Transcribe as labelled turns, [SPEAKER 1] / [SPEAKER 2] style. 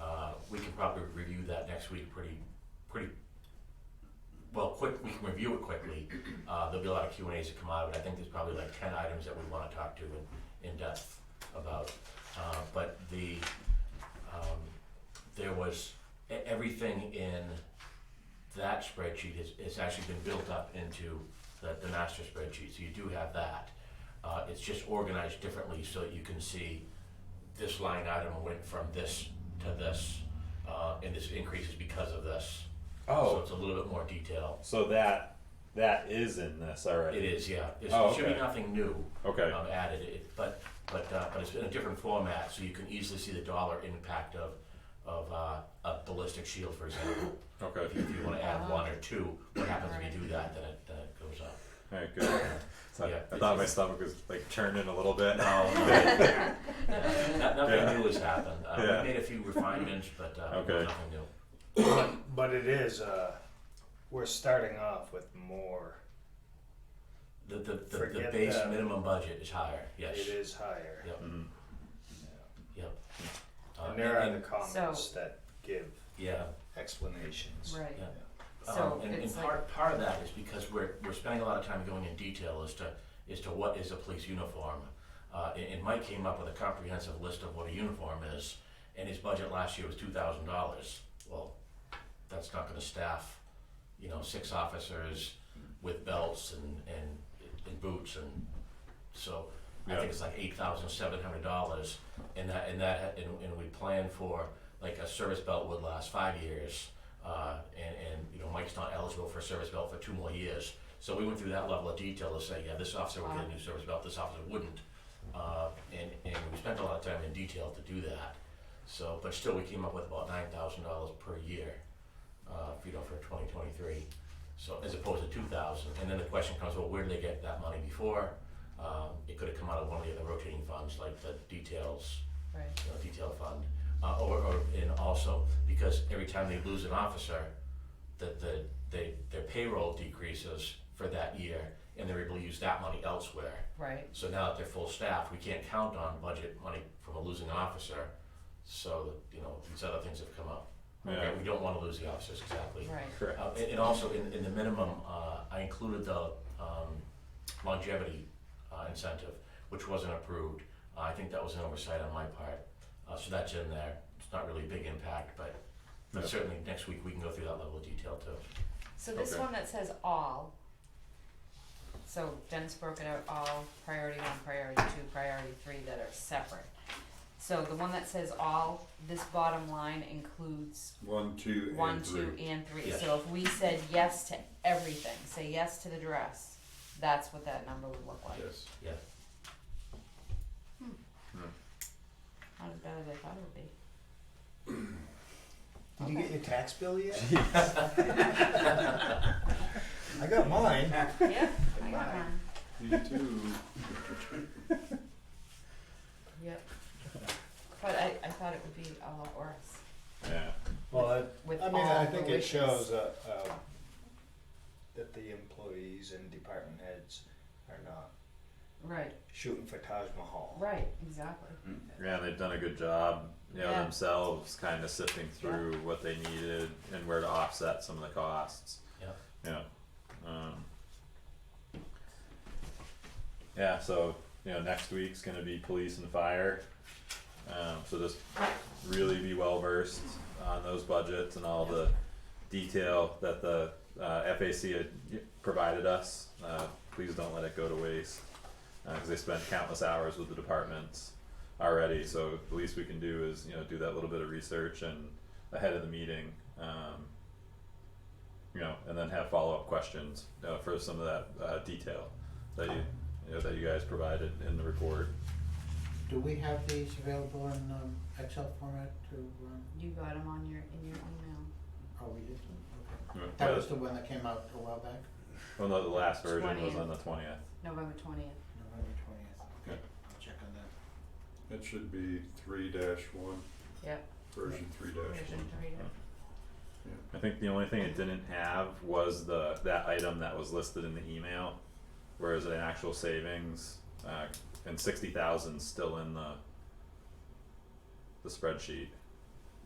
[SPEAKER 1] Uh, we can probably review that next week pretty, pretty, well, quick, we can review it quickly. Uh, there'll be a lot of Q and As that come out, but I think there's probably like ten items that we wanna talk to in, in depth about. Uh, but the, um, there was, e- everything in that spreadsheet is, is actually been built up into the, the master spreadsheet, so you do have that. Uh, it's just organized differently so that you can see this line item went from this to this, uh, and this increase is because of this. So
[SPEAKER 2] Oh,
[SPEAKER 1] it's a little bit more detail.
[SPEAKER 2] so that that is in this already.
[SPEAKER 1] It is, yeah. It's-
[SPEAKER 2] Oh,
[SPEAKER 1] It should be
[SPEAKER 2] okay.
[SPEAKER 1] nothing new.
[SPEAKER 2] Okay.
[SPEAKER 1] um, Added, It- but, but, uh, but it's in a different format, so you can easily see the dollar impact of, of, uh, a ballistic shield, for example.
[SPEAKER 2] Okay.
[SPEAKER 1] If you- if you wanna add one or two, what happens if you do that, then it, then it goes up.
[SPEAKER 2] All right. Good. So I-
[SPEAKER 1] Yeah,
[SPEAKER 2] I
[SPEAKER 1] it's
[SPEAKER 2] thought my
[SPEAKER 1] just-
[SPEAKER 2] stomach was like churning a little bit.
[SPEAKER 1] Yeah, no-
[SPEAKER 2] Yeah.
[SPEAKER 1] Nothing new has happened. Uh,
[SPEAKER 2] Yeah.
[SPEAKER 1] We made a few refinements, but, uh,
[SPEAKER 2] Okay.
[SPEAKER 1] nothing new.
[SPEAKER 3] But it is, uh, we're starting off with more.
[SPEAKER 1] The, the, the, the
[SPEAKER 3] Forget
[SPEAKER 1] base
[SPEAKER 3] that.
[SPEAKER 1] minimum budget is higher, yes.
[SPEAKER 3] It is higher.
[SPEAKER 1] Yep,
[SPEAKER 2] Mhm.
[SPEAKER 1] yep. Uh,
[SPEAKER 3] And there are the
[SPEAKER 1] and-
[SPEAKER 3] comments that give
[SPEAKER 1] Yeah,
[SPEAKER 3] explanations.
[SPEAKER 4] Right.
[SPEAKER 1] yeah.
[SPEAKER 4] So
[SPEAKER 1] Um, and, and
[SPEAKER 4] it's like-
[SPEAKER 1] part, part of that is because we're, we're spending a lot of time going in detail as to, as to what is a police uniform. Uh, and, and Mike came up with a comprehensive list of what a uniform is, and his budget last year was two thousand dollars. Well, that's not gonna staff, you know, six officers with belts and, and, and boots and, so I
[SPEAKER 2] Yeah.
[SPEAKER 1] think it's like eight thousand seven hundred dollars. And that, and that, and, and we planned for, like a service belt would last five years, uh, and, and, you know, Mike's not eligible for a service belt for two more years. So we went through that level of detail to say, yeah, this officer would get a new service belt, this officer wouldn't. Uh, and, and we spent a lot of time in detail to do that. So, but still, we came up with about nine thousand dollars per year, uh, you know, for twenty twenty-three. So as opposed to two thousand, and then the question comes, well, where did they get that money before? Um, it could have come out of one of the other rotating funds, like the details,
[SPEAKER 4] Right.
[SPEAKER 1] you know, detail fund, uh, or, or, and also, because every time they lose an officer, that the, they, their payroll decreases for that year, and they're able to use that money elsewhere.
[SPEAKER 4] Right.
[SPEAKER 1] So now that they're full staff, we can't count on budget money from a losing officer, so, you know, these other things have come up.
[SPEAKER 2] Yeah.
[SPEAKER 1] We don't wanna lose the officers, exactly.
[SPEAKER 4] Right.
[SPEAKER 2] Correct.
[SPEAKER 1] Uh, and, and also in, in the minimum, uh, I included the, um, longevity, uh, incentive, which wasn't approved. Uh, I think that was an oversight on my part, uh, so that's in there, it's not really a big impact, but, but
[SPEAKER 2] Yeah.
[SPEAKER 1] certainly next week we can go through that level of detail too.
[SPEAKER 4] So this
[SPEAKER 2] Okay.
[SPEAKER 4] one that says all. So Dennis broke it out all priority one, priority two, priority three that are separate. So the one that says all, this bottom line includes
[SPEAKER 5] One, two, and
[SPEAKER 4] one,
[SPEAKER 5] three.
[SPEAKER 4] two, and three.
[SPEAKER 1] Yes.
[SPEAKER 4] So if we said yes to everything, say yes to the dress, that's what that number would look like.
[SPEAKER 5] Yes.
[SPEAKER 1] Yeah,
[SPEAKER 4] Not as bad as I thought it would be.
[SPEAKER 3] Did you get your tax bill yet? I got mine.
[SPEAKER 4] Yeah, I got one.
[SPEAKER 5] You too.
[SPEAKER 4] Yep. But I, I thought it would be all or us
[SPEAKER 2] Yeah.
[SPEAKER 3] Well, I,
[SPEAKER 4] with
[SPEAKER 3] I
[SPEAKER 4] all
[SPEAKER 3] mean, I
[SPEAKER 4] the
[SPEAKER 3] think it
[SPEAKER 4] wishes.
[SPEAKER 3] shows that, uh, that the employees and department heads are not
[SPEAKER 4] Right,
[SPEAKER 3] shooting for Taj Mahal.
[SPEAKER 4] right, exactly.
[SPEAKER 2] Yeah, they've done a good job, you know,
[SPEAKER 4] Yeah.
[SPEAKER 2] themselves kind of sifting through what they needed and where to offset some of the costs.
[SPEAKER 1] yeah.
[SPEAKER 2] Yeah. Um, yeah, so, you know, next week's gonna be police and fire. Um, so just really be well versed on those budgets and all the detail that the uh, FAC had provided us. Uh, please don't let it go to waste, Uh 'cause cause they spent countless hours with the departments already, so the least we can do is, you know, do that little bit of research and ahead of the meeting, um, you know, and then have follow-up questions, uh, for some of that, uh, detail that you, you know, that you guys provided in the report.
[SPEAKER 6] Do we have these available in um, Excel format to, um,
[SPEAKER 4] You got them on your, in your email.
[SPEAKER 6] oh, we did, okay.
[SPEAKER 2] Yeah,
[SPEAKER 6] That was the one that came out a while back,
[SPEAKER 2] Uh, Well, no, the last version was on the twentieth.
[SPEAKER 4] November twentieth.
[SPEAKER 6] November twentieth. Okay, I'll check on that.
[SPEAKER 5] That should be three dash one,
[SPEAKER 4] Yep.
[SPEAKER 5] version three dash one.
[SPEAKER 2] I think the only thing it didn't have was the, that item that was listed in the email, whereas an actual savings, uh, and sixty thousand still in the the spreadsheet.